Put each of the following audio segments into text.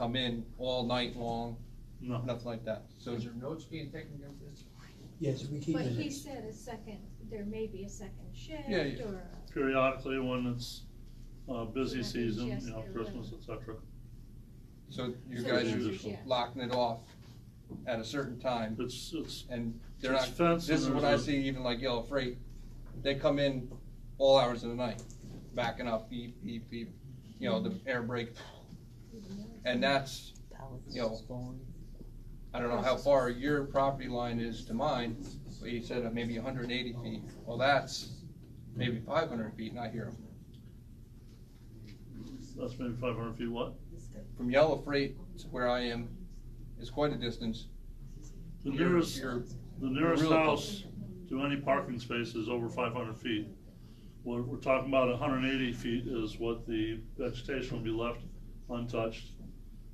I'm in all night long, No. nothing like that. So Is there notes being taken against this? Yes, we keep But he minutes. said a second, there may be a second shift Yeah, yeah. or, Periodically, when it's, uh, busy Like season, just you know, their Christmas, et cetera. So you So guys the answer's are yes. locking it off at a certain time, It's, it's, and they're It's not, fenced this is and what I there's a- see even like Yellow Freight, they come in all hours of the night, backing up, beep, beep, beep, you know, the air brake, and that's, you know, I don't know how far your property line is to mine, but he said uh, maybe hundred and eighty feet, well, that's maybe five hundred feet, and I hear 'em. that's maybe five hundred feet what? From Yellow Freight to where I am, is quite a distance. The Your- nearest, your- the nearest real- house to any parking space is over five hundred feet. We're, we're talking about hundred and eighty feet is what the vegetation will be left untouched.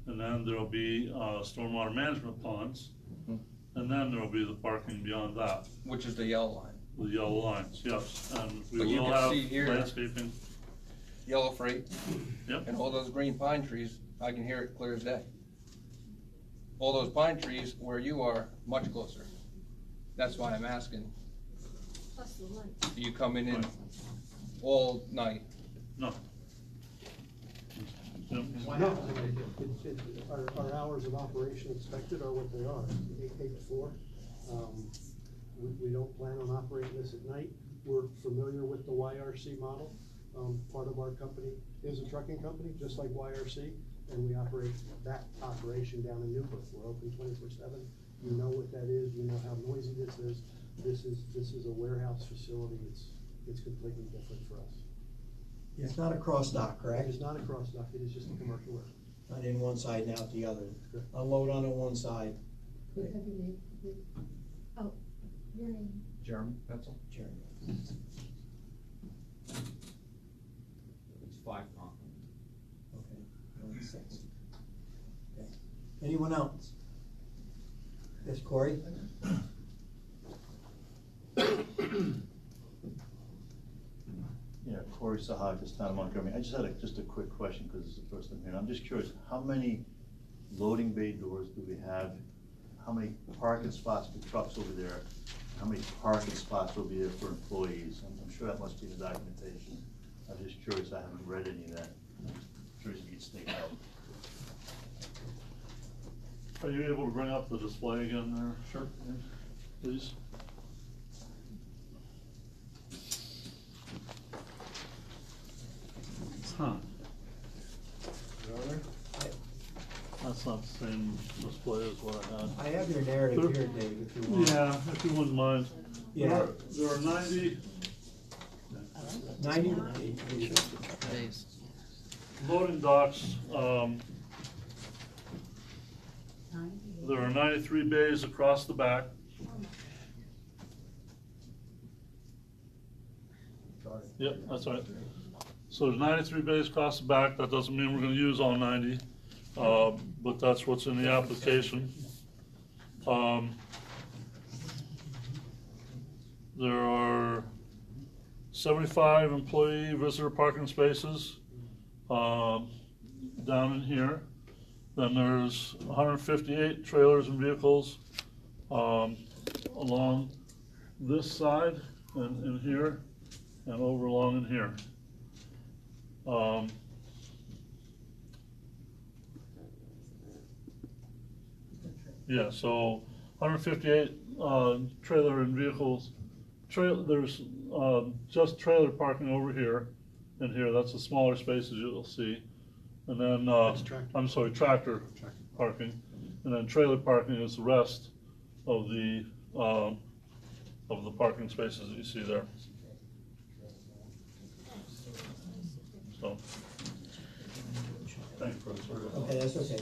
And then there'll be, uh, stormwater management ponds, Mhm. and then there'll be the parking beyond that, Which is the yellow line. the yellow lines, yes. And we But you will can have see here- landscaping, Yellow freight yep, and all those green pine trees, I can hear it clear as day. All those pine trees where you are, much closer. That's why I'm asking, plus the light. do you come in in Right. all night? no. Yep. And what No, happens if they do? it's, it's, our, our hours of operation expected are what they are, eight, eight to four. Um, We, we don't plan on operating this at night. We're familiar with the YRC model. Um, part of our company is a trucking company, just like YRC, and we operate that operation down in Newburgh. We're open twenty-four seven. You know what that is, you know how noisy this is. This is, this is a warehouse facility. It's, it's completely different for us. It's not a cross dock, It correct? is not a cross dock, it is just a commercial warehouse. Not in one side and out the other. Correct. Unload onto one side, Have your name, oh, your name. Jeremy, that's all. Jeremy. It's five o'clock. Okay, that makes sense. Okay. Anyone else? Yes, Corey? Yeah, Corey Sahakis, town of Montgomery. I just had a, just a quick question, because it's the first time here. I'm just curious, how many loading bay doors do we have? How many parking spots for trucks over there? How many parking spots will be there for employees? I'm, I'm sure that must be in the documentation. I'm just curious, I haven't read any of that. I'm Curious if you could state out. Are you able to bring up the display again there? Sure. Please? Huh, that's not the same display as what I I had. have your narrative here, Dave, if you want. Yeah, if you wouldn't mind. There Yeah. are- There are ninety Ninety, loading docks, um, there are ninety-three bays across the back. Yep, that's all right. So there's ninety-three bays across the back, that doesn't mean we're gonna use all ninety, uh, but that's what's in the application. Um, There are seventy-five employee visitor parking spaces, um, down in here. Then there's hundred and fifty-eight trailers and vehicles, um, along this side and, and here and over along in here. Um, Yeah, so hundred fifty-eight, uh, trailer and vehicles, trail, there's, um, just trailer parking over here and here, that's the smaller spaces you'll see. And then, uh, That's tractor. I'm sorry, tractor Tractor. parking, and then trailer parking is the rest of the, um, of the parking spaces that you see there. So. Thank you, President. okay, that's okay.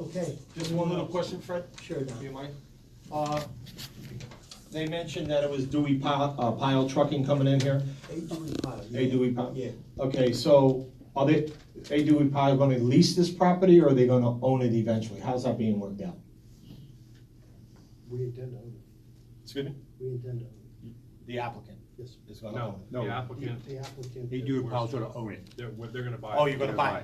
Okay, Just one little question, Fred. sure, Don. Do you mind? Uh, They mentioned that it was Dewey Pile, uh, Pile Trucking coming in here. Hey, Dewey Pyle. A Dewey Pile? Yeah. Okay, so are they, A Dewey Pile gonna lease this property or are they gonna own it eventually? How's that being worked out? We intend to own it. Excuse me? We intend to own The applicant. it. Yes, sir. No, the applicant, The applicant. They do apologize to own it. They're, they're gonna buy it. oh, you're gonna buy it.